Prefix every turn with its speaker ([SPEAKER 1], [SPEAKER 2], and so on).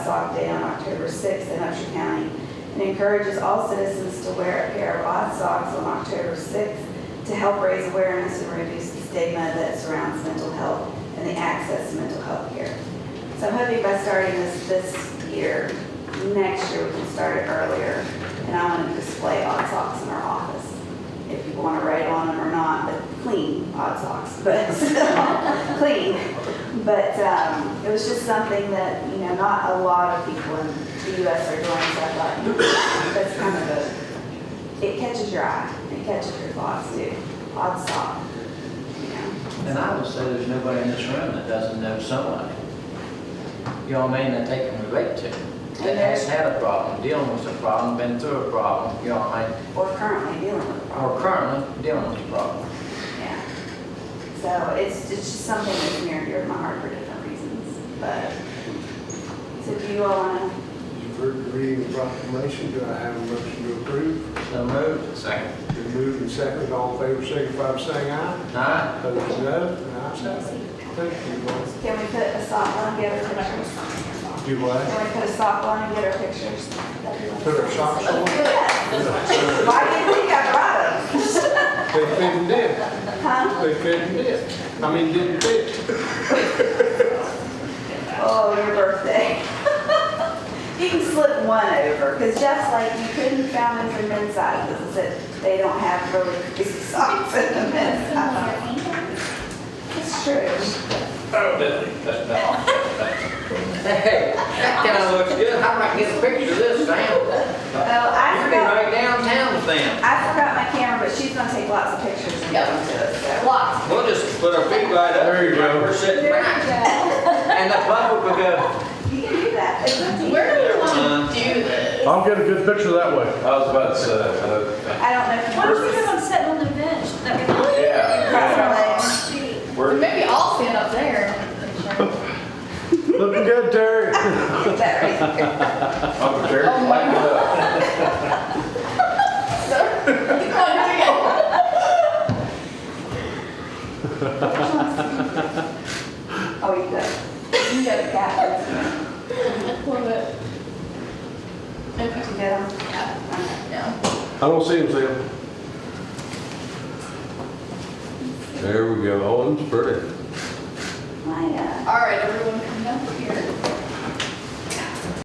[SPEAKER 1] Sock Day on October 6th in Upshur County and encourages all citizens to wear a pair of odd socks on October 6th to help raise awareness and reduce the stigma that surrounds mental health and the access to mental health care. So I'm hoping by starting this this year, next year we can start it earlier. And I want to display odd socks in our office. If you want to write on them or not, but clean odd socks, but still clean. But um, it was just something that, you know, not a lot of people in the US are doing, so I thought that's kind of a, it catches your eye, it catches your thoughts too. Odd sock, you know.
[SPEAKER 2] And I would say there's nobody in this room that doesn't know somebody. You know what I mean, that they can relate to. That has had a problem, dealing with a problem, been through a problem, you know what I mean?
[SPEAKER 1] Or currently dealing with a problem.
[SPEAKER 2] Or currently dealing with a problem.
[SPEAKER 1] Yeah. So it's, it's just something that's near and dear to my heart for different reasons, but, so do you all wanna,
[SPEAKER 3] You've heard the reading of the proclamation, do I have a motion to approve?
[SPEAKER 2] So moved. Second.
[SPEAKER 3] Been moved and seconded, all in favor, signify by saying aye.
[SPEAKER 2] Aye.
[SPEAKER 3] Opposed, no. The ayes have it. Thank you, Lord.
[SPEAKER 1] can we put a sock on and get our pictures?
[SPEAKER 3] Do what?
[SPEAKER 1] Can we put a sock on and get our pictures?
[SPEAKER 3] Put our socks on?
[SPEAKER 1] Yes. Why do you think I brought them?
[SPEAKER 3] They fit and did. They fit and did. I mean, didn't fit.
[SPEAKER 1] Oh, your birthday. You can slip one over, because Jeff's like, you couldn't found them for men's sizes, It said they don't have really crazy socks in the men's size. It's true.
[SPEAKER 2] Oh, Billy, that's bad. Hey, that kinda looks good. How about I get a picture of this,
[SPEAKER 1] Oh,
[SPEAKER 2] Sam?
[SPEAKER 1] I
[SPEAKER 2] You'd be
[SPEAKER 1] forgot,
[SPEAKER 2] right downtown, Sam.
[SPEAKER 1] I forgot my camera, but she's gonna take lots of pictures and get them to us, so.
[SPEAKER 4] Lots.
[SPEAKER 2] We'll just put our feet right up.
[SPEAKER 3] There you go.
[SPEAKER 2] We're sitting back, and the public will go,
[SPEAKER 1] You can do that, it's up to you.
[SPEAKER 4] Where do we want to do this?
[SPEAKER 5] I'll get a good picture that way.
[SPEAKER 6] I was about to say, uh,
[SPEAKER 1] I don't know if
[SPEAKER 7] Why don't
[SPEAKER 1] you
[SPEAKER 7] you have them sitting on the bench? That'd be nice.
[SPEAKER 1] cross
[SPEAKER 6] yeah,
[SPEAKER 1] my legs.
[SPEAKER 6] yeah.
[SPEAKER 4] Or
[SPEAKER 6] We're,
[SPEAKER 4] Maybe I'll stand up there.
[SPEAKER 5] Looking good, Terry.
[SPEAKER 1] Is that right?
[SPEAKER 6] I'm prepared to light it up.
[SPEAKER 1] Oh, you go. You go to cat. You get them?
[SPEAKER 4] No.
[SPEAKER 5] I don't see him, Sam. There we go. Oh, it's pretty.
[SPEAKER 1] My, uh,
[SPEAKER 4] All right, everyone